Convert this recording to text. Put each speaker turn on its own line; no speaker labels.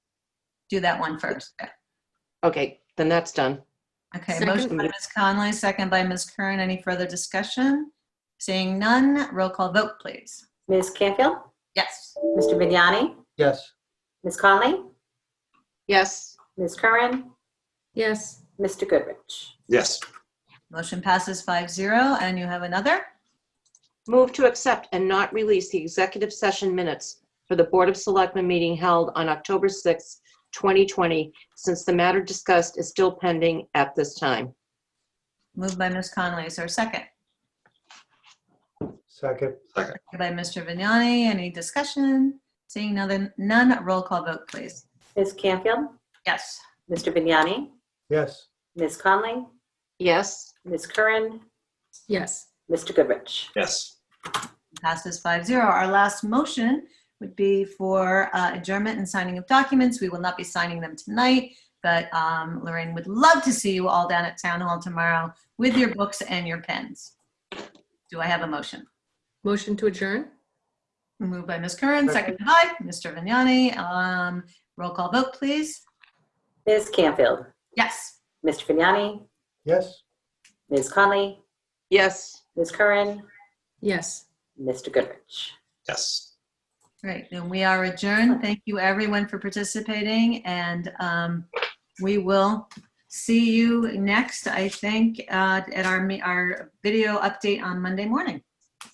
do that one first. Okay.
Okay, then that's done.
Okay,
Second.
motion by Ms. Conley, second by Ms. Curran. Any further discussion? Seeing none, roll call vote, please.
Ms. Canfield?
Yes.
Mr. Vignani?
yes,
Ms. Conley?
Yes.
Ms. Curran?
Yes.
Mr. Goodrich?
yes,
Motion passes 5-0, and you have another?
Move to accept and not release the executive session minutes for the Board of Selectmen meeting held on October 6th, 2020, since the matter discussed is still pending at this time.
Moved by Ms. Conley, is there a second?
second,
Second By Mr. Vignani, any discussion? Seeing none, none, roll call vote, please.
Ms. Canfield?
Yes.
Mr. Vignani?
yes,
Ms. Conley?
Yes?
Ms. Curran?
Yes.
Mr. Goodrich?
yes.
Passes 5-0. Our last motion would be for uh, adjournment and signing of documents. We will not be signing them tonight, but um, Lorraine would love to see you all down at Town Hall tomorrow with your books and your pens. Do I have a motion?
Motion to adjourn?
Moved by Ms. Curran, seconded by Mr. Vignani. Um, Roll call vote, please.
Ms. Canfield?
Yes.
Mr. Vignani?
yes.
Ms. Conley?
Yes.
Ms. Curran?
Yes.
Mr. Goodrich?
Yes.
Great, and we are adjourned. Thank you, everyone, for participating, and um, we will see you next, I think, uh, at our, me- our video update on Monday morning.